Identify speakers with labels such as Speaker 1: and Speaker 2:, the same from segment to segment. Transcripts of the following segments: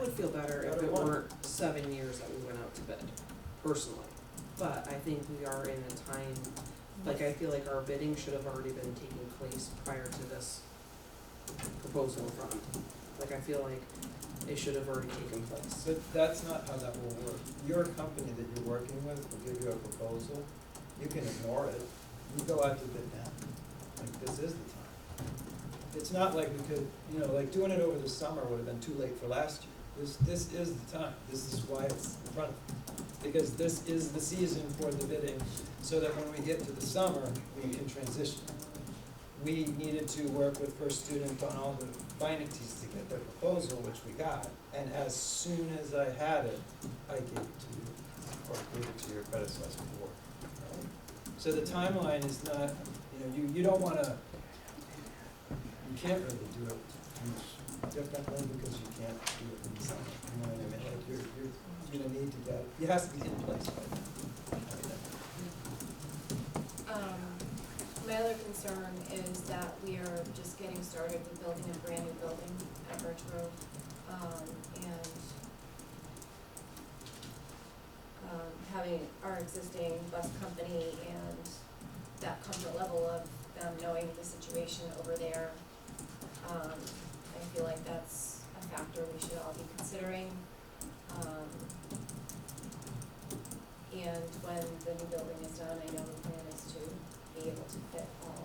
Speaker 1: would feel better if it weren't seven years that we went out to bid, personally. But I think we are in a time, like, I feel like our bidding should have already been taking place prior to this proposal from. Like, I feel like it should have already taken place.
Speaker 2: But that's not how that will work. Your company that you're working with will give you a proposal, you can ignore it, you go out to bid now. Like, this is the time. It's not like we could, you know, like doing it over the summer would have been too late for last year. This, this is the time, this is why it's in front of us. Because this is the season for the bidding, so that when we get to the summer, we can transition. We needed to work with First Student on all the finances to get their proposal, which we got. And as soon as I had it, I gave it to you, or gave it to your predecessor board. right? So the timeline is not, you know, you, you don't wanna, you can't really do it much differently because you can't do it in the summer. You know what I mean? Like, you're, you're, you're gonna need to get, it has to be in place by then.
Speaker 3: Um, my other concern is that we are just getting started with building a brand new building at Birch Grove, um, and um, having our existing bus company and that comfort level of them knowing the situation over there, um, I feel like that's a factor we should all be considering. Um, and when the new building is done, I know the plan is to be able to fit all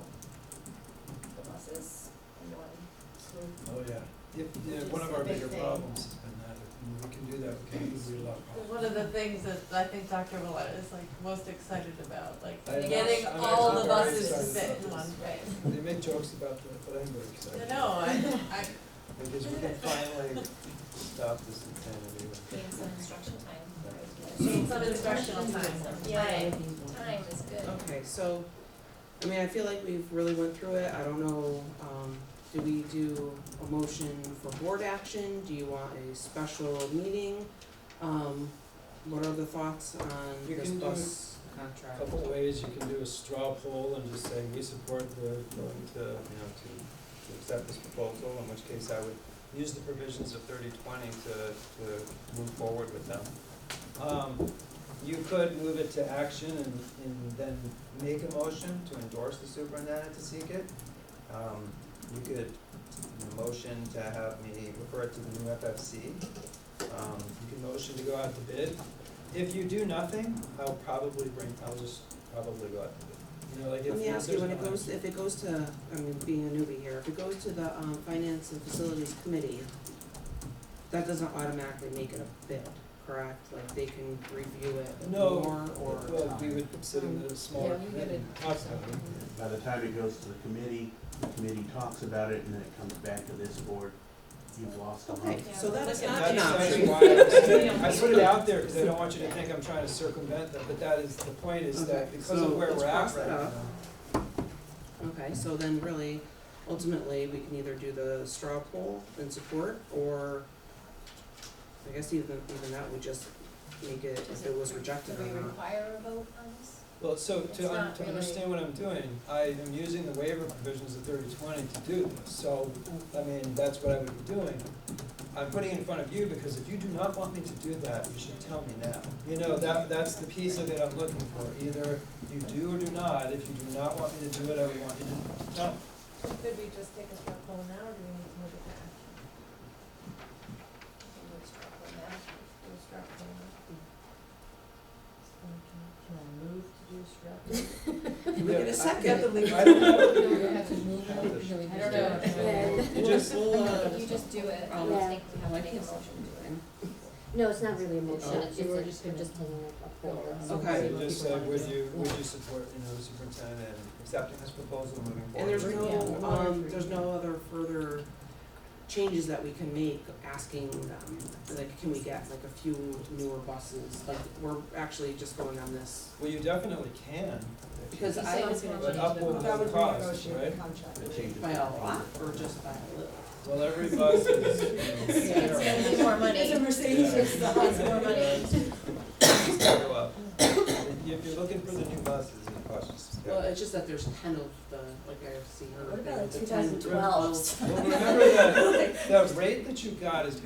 Speaker 3: the buses in one swoop.
Speaker 2: Oh, yeah. If, yeah, one of our bigger problems has been that, if we can do that, we can easily lock off.
Speaker 4: One of the things that I think Dr. Willett is like most excited about, like
Speaker 2: I know.
Speaker 4: getting
Speaker 2: I'm
Speaker 4: all
Speaker 2: actually
Speaker 4: the
Speaker 2: very
Speaker 4: buses to
Speaker 2: excited
Speaker 4: fit
Speaker 2: about
Speaker 4: in
Speaker 2: this.
Speaker 4: one place.
Speaker 2: They make jokes about that, but I'm very excited.
Speaker 4: No, I, I,
Speaker 2: Because we can finally stop this insanity.
Speaker 3: Gain some instruction time.
Speaker 4: need some instructional time,
Speaker 3: Yeah.
Speaker 4: right,
Speaker 3: Time is good.
Speaker 1: Okay, so, I mean, I feel like we've really went through it, I don't know, um, do we do a motion for board action, do you want a special meeting? Um, what are the thoughts on
Speaker 2: You
Speaker 1: this
Speaker 2: can do
Speaker 1: bus
Speaker 2: A
Speaker 1: contract?
Speaker 2: Couple ways, you can do a straw poll and just say, we support the, going to, you know, to, to accept this proposal, in which case I would use the provisions of thirty twenty to, to move forward with them. Um, you could move it to action and, and then make a motion to endorse the superintendent to seek it. Um, you could, you know, motion to have me refer it to the new FFC. Um, you can motion to go out to bid. If you do nothing, I'll probably bring, I'll just probably go out to bid. You know, like if
Speaker 1: Let me
Speaker 2: there's
Speaker 1: ask you, when it
Speaker 2: no
Speaker 1: goes,
Speaker 2: action.
Speaker 1: if it goes to, I mean, being a newbie here, if it goes to the, um, finance and facilities committee, that doesn't automatically make it a bid, correct? Like, they can review it
Speaker 2: No,
Speaker 1: more or?
Speaker 2: Well, uh, we would consider
Speaker 1: Um,
Speaker 2: it a smaller
Speaker 3: Yeah, we
Speaker 2: committee.
Speaker 3: gotta-
Speaker 2: Possibly.
Speaker 5: By the time it goes to the committee, the committee talks about it, and then it comes back to this board. You've lost a
Speaker 1: Okay,
Speaker 5: month.
Speaker 1: so that is not
Speaker 2: That's,
Speaker 1: an
Speaker 2: that's
Speaker 1: option.
Speaker 2: why I, I put it out there, because I don't want you to think I'm trying to circumvent them, but that is, the point is that
Speaker 1: Okay,
Speaker 2: because
Speaker 1: so
Speaker 2: of where
Speaker 1: let's
Speaker 2: we're at
Speaker 1: cross
Speaker 2: right
Speaker 1: that
Speaker 2: now.
Speaker 1: out. Okay, so then really, ultimately, we can either do the straw poll and support, or I guess even, even that would just make it, if it was
Speaker 3: Do
Speaker 1: rejected or
Speaker 3: we
Speaker 1: not.
Speaker 3: require a vote on this?
Speaker 2: Well, so
Speaker 3: It's
Speaker 2: to, un-
Speaker 3: not
Speaker 2: to
Speaker 3: really-
Speaker 2: understand what I'm doing, I am using the waiver provisions of thirty twenty to do this, so, I mean, that's what I would be doing. I'm putting it in front of you, because if you do not want me to do that, you should tell me now. You know, that, that's the piece of it I'm looking for, either you do or do not, if you do not want me to do it, I would want you to tell me.
Speaker 6: Could we just take a straw poll now, or do we need to move it to action?
Speaker 3: We can do a straw poll now. Do a straw poll now.
Speaker 6: So Can can I move to do a straw poll?
Speaker 1: Can we get
Speaker 2: Yeah,
Speaker 1: a
Speaker 2: I-
Speaker 1: second?
Speaker 2: I don't know.
Speaker 7: No, we have to move it, or do we
Speaker 3: I
Speaker 7: just
Speaker 3: don't
Speaker 7: do
Speaker 3: know.
Speaker 7: it?
Speaker 2: You just,
Speaker 1: We'll, uh,
Speaker 3: If you just do it,
Speaker 7: Um,
Speaker 3: I
Speaker 1: Yeah.
Speaker 3: don't think we have to make a motion to it.
Speaker 7: No, it's not really a
Speaker 2: Oh.
Speaker 7: motion, it's,
Speaker 6: You were
Speaker 7: just,
Speaker 6: just
Speaker 7: we're
Speaker 6: gonna-
Speaker 7: just taking a- a
Speaker 3: uh,
Speaker 7: poll.
Speaker 6: Okay.
Speaker 7: so we'll
Speaker 1: Okay.
Speaker 7: see
Speaker 2: you
Speaker 7: what
Speaker 2: just
Speaker 7: people
Speaker 2: say,
Speaker 7: wanna
Speaker 2: would
Speaker 7: do.
Speaker 2: you,
Speaker 7: Yeah.
Speaker 2: would you support, you know, the superintendent and accepting this proposal and moving forward?
Speaker 1: And there's no,
Speaker 6: Yeah.
Speaker 1: um, there's no other further changes that we can make asking them, like, can we get like a few newer buses? Like, we're actually just going on this,
Speaker 2: Well, you definitely can,
Speaker 1: because
Speaker 3: You
Speaker 1: I
Speaker 3: say
Speaker 1: was
Speaker 3: it's
Speaker 1: gonna
Speaker 3: not
Speaker 1: change
Speaker 2: up
Speaker 1: the
Speaker 2: with
Speaker 1: bus
Speaker 2: the cost, right?
Speaker 5: The changes.
Speaker 1: by a lot or just by a little.
Speaker 2: well, every bus is, you know,
Speaker 3: It's gonna be more money.
Speaker 6: It's a Mercedes, it's the
Speaker 2: Yeah.
Speaker 3: It's more money.
Speaker 2: it's gonna go up. If you're looking for the new buses, it costs.
Speaker 1: Well, it's just that there's ten of the, like I've seen on the
Speaker 6: What about
Speaker 1: thing,
Speaker 6: like
Speaker 1: the 10,
Speaker 6: 2012s?
Speaker 2: Well, remember that, the rate that you got is